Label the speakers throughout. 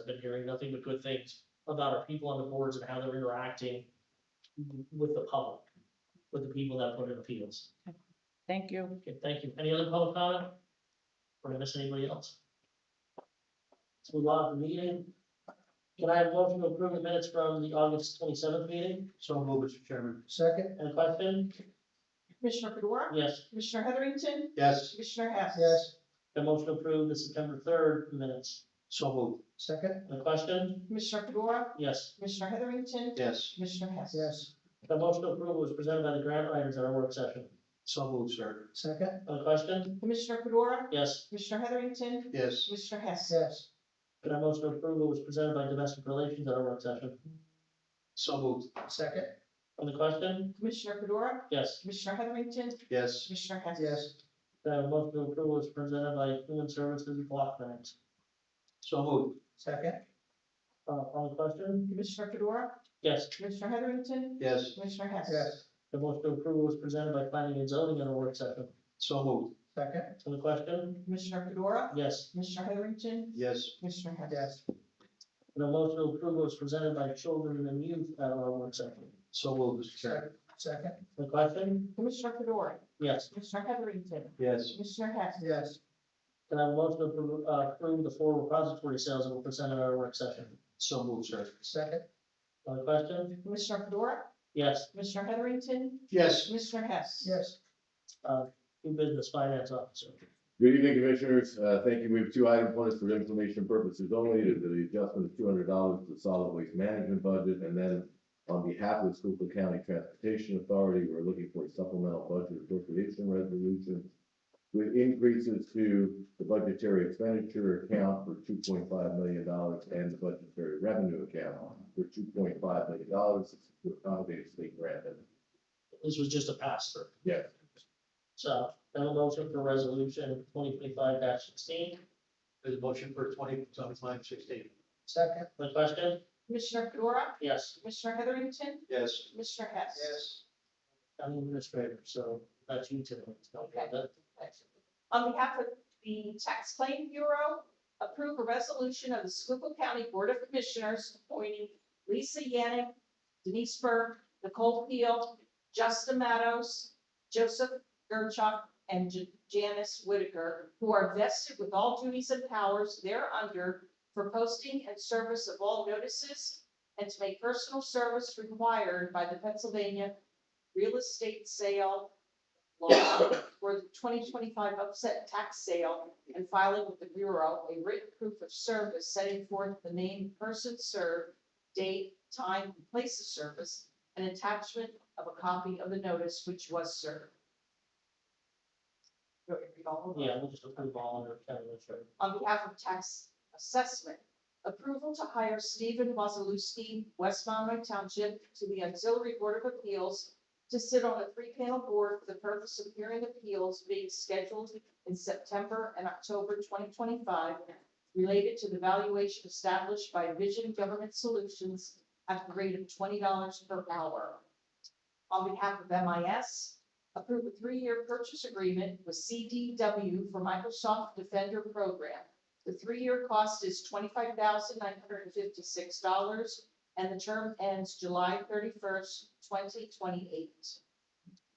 Speaker 1: been hearing nothing but good things about our people on the boards and how they're interacting with the public, with the people that put in appeals.
Speaker 2: Thank you.
Speaker 1: Okay, thank you. Any other public comment? Or did I miss anybody else? Let's move on to the meeting. Can I have a motion to approve the minutes from the August twenty-seventh meeting?
Speaker 3: So move, Mr. Chairman.
Speaker 4: Second?
Speaker 1: Any question?
Speaker 5: Commissioner Fedora,
Speaker 1: Yes.
Speaker 5: Commissioner Heatherington,
Speaker 3: Yes.
Speaker 5: Commissioner Hess.
Speaker 4: Yes.
Speaker 1: The motion to approve the September third minutes.
Speaker 3: So move,
Speaker 4: Second?
Speaker 1: Any question?
Speaker 5: Commissioner Fedora,
Speaker 1: Yes.
Speaker 5: Commissioner Heatherington,
Speaker 3: yes.
Speaker 5: Commissioner Hess.
Speaker 4: Yes.
Speaker 1: The motion to approve was presented by the grant writers at our work session.
Speaker 3: So move, sir.
Speaker 4: Second?
Speaker 1: Any question?
Speaker 5: Commissioner Fedora,
Speaker 1: Yes.
Speaker 5: Commissioner Heatherington,
Speaker 3: Yes.
Speaker 5: Commissioner Hess.
Speaker 4: Yes.
Speaker 1: The motion to approve was presented by domestic relations at our work session.
Speaker 3: So move,
Speaker 4: Second?
Speaker 1: Any question?
Speaker 5: Commissioner Fedora,
Speaker 1: Yes.
Speaker 5: Commissioner Heatherington,
Speaker 3: yes.
Speaker 5: Commissioner Hess.
Speaker 4: Yes.
Speaker 1: The motion to approve was presented by human services block grant.
Speaker 3: So move,
Speaker 4: Second?
Speaker 1: Uh, on the question?
Speaker 5: Commissioner Fedora,
Speaker 1: Yes.
Speaker 5: Commissioner Heatherington,
Speaker 3: yes.
Speaker 5: Commissioner Hess.
Speaker 4: Yes.
Speaker 1: The motion to approve was presented by planning and zoning in a work session.
Speaker 3: So move,
Speaker 4: Second?
Speaker 1: On the question?
Speaker 5: Commissioner Fedora,
Speaker 1: Yes.
Speaker 5: Commissioner Heatherington,
Speaker 3: yes.
Speaker 5: Commissioner Hess.
Speaker 4: Yes.
Speaker 1: The motion to approve was presented by children and youth at our work session.
Speaker 3: So move, Mr. Chairman.
Speaker 4: Second?
Speaker 1: On the question?
Speaker 5: Commissioner Fedora,
Speaker 1: Yes.
Speaker 5: Commissioner Heatherington,
Speaker 3: Yes.
Speaker 5: Commissioner Hess.
Speaker 4: Yes.
Speaker 1: Can I have a motion to approve, uh, approve the four repository sales that were presented at our work session?
Speaker 3: So move, sir.
Speaker 4: Second?
Speaker 1: On the question?
Speaker 5: Commissioner Fedora,
Speaker 1: Yes.
Speaker 5: Commissioner Heatherington,
Speaker 3: Yes.
Speaker 5: Commissioner Hess.
Speaker 4: Yes.
Speaker 1: New business finance officer.
Speaker 6: Good evening, Commissioners. Uh, Thank you. We have two items. One is for information purposes only, It is the adjustment of two hundred dollars to the solid waste management budget. And then on behalf of the Schuylkill County Transportation Authority, we're looking for a supplemental budget appropriation resolution with increases to the budgetary expenditure account for two point five million dollars and the budgetary revenue account for two point five million dollars to accommodate state grant.
Speaker 1: This was just a pass through.
Speaker 6: Yes.
Speaker 1: So, then a motion for resolution twenty twenty-five sixteen.
Speaker 3: There's a motion for twenty, twenty-five, sixteen.
Speaker 4: Second?
Speaker 1: On the question?
Speaker 5: Commissioner Fedora,
Speaker 1: Yes.
Speaker 5: Commissioner Heatherington,
Speaker 3: Yes.
Speaker 5: Commissioner Hess.
Speaker 4: Yes.
Speaker 1: County administrator, so that's you today.
Speaker 5: Okay. On behalf of the Tax Claim Bureau, approve a resolution of the Schuylkill County Board of Commissioners appointing Lisa Yannick, Denise Burke, Nicole Peel, Justin Matos, Joseph Gerchuk, and Ja- Janice Whitaker, who are vested with all duties and powers thereunder for posting and service of all notices and to make personal service required by the Pennsylvania Real Estate Sale law for the twenty twenty-five upset tax sale and filing with the Bureau a written proof of service setting forth the name, person served, date, time, and place of service, and attachment of a copy of the notice which was served. Do you want me to read all of them?
Speaker 1: Yeah, we'll just approve all under county administrator.
Speaker 5: on behalf of tax assessment. Approval to hire Stephen Wazalewski, West Monroe Township, to the Auxiliary Board of Appeals to sit on a three-panel board for the purpose of hearing appeals being scheduled in September and October twenty twenty-five related to the valuation established by Vision Government Solutions at the rate of twenty dollars per hour. On behalf of MIS, approve a three-year purchase agreement with CDW for Microsoft Defender Program. The three-year cost is twenty-five thousand nine hundred and fifty-six dollars, and the term ends July thirty-first, twenty twenty-eight.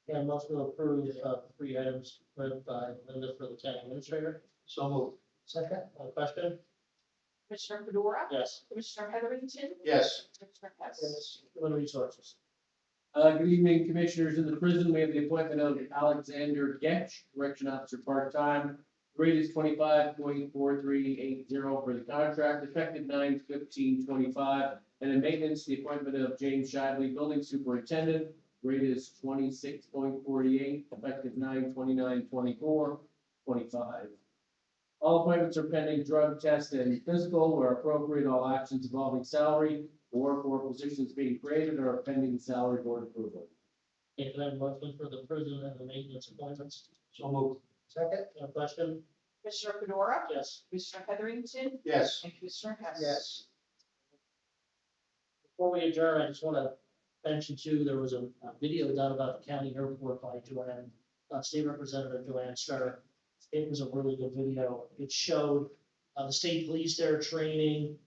Speaker 1: Yeah, motion to approve, uh, three items read by Linda for the county administrator.
Speaker 3: So move,
Speaker 4: Second?
Speaker 1: On the question?
Speaker 5: Commissioner Fedora,
Speaker 1: Yes.
Speaker 5: Commissioner Heatherington,
Speaker 3: yes.
Speaker 5: Commissioner Hess.
Speaker 1: Human resources.
Speaker 7: Uh, good evening, Commissioners. In the prison, we have the appointment of Alexander Getch, Correction Officer, part-time. Grade is twenty-five point four three eight zero for the contract, effective nine fifteen twenty-five. And in maintenance, the appointment of James Shively, Building Superintendent. Grade is twenty-six point forty-eight, effective nine twenty-nine twenty-four, twenty-five. All appointments are pending drug test and physical. Where appropriate, all actions involving salary or for positions being created or pending salary board approval.
Speaker 1: Okay, can I have a motion for the prison and the maintenance appointments?
Speaker 3: So move,
Speaker 4: Second?
Speaker 1: On the question?
Speaker 5: Commissioner Fedora,
Speaker 1: Yes.
Speaker 5: Commissioner Heatherington,
Speaker 3: yes.
Speaker 5: and Commissioner Hess.
Speaker 4: Yes.
Speaker 1: Before we adjourn, I just want to mention too, there was a a video done about the county airport by Joanne, uh, State Representative Joanne Strutter. It was a really good video. It showed, uh, the state police there training,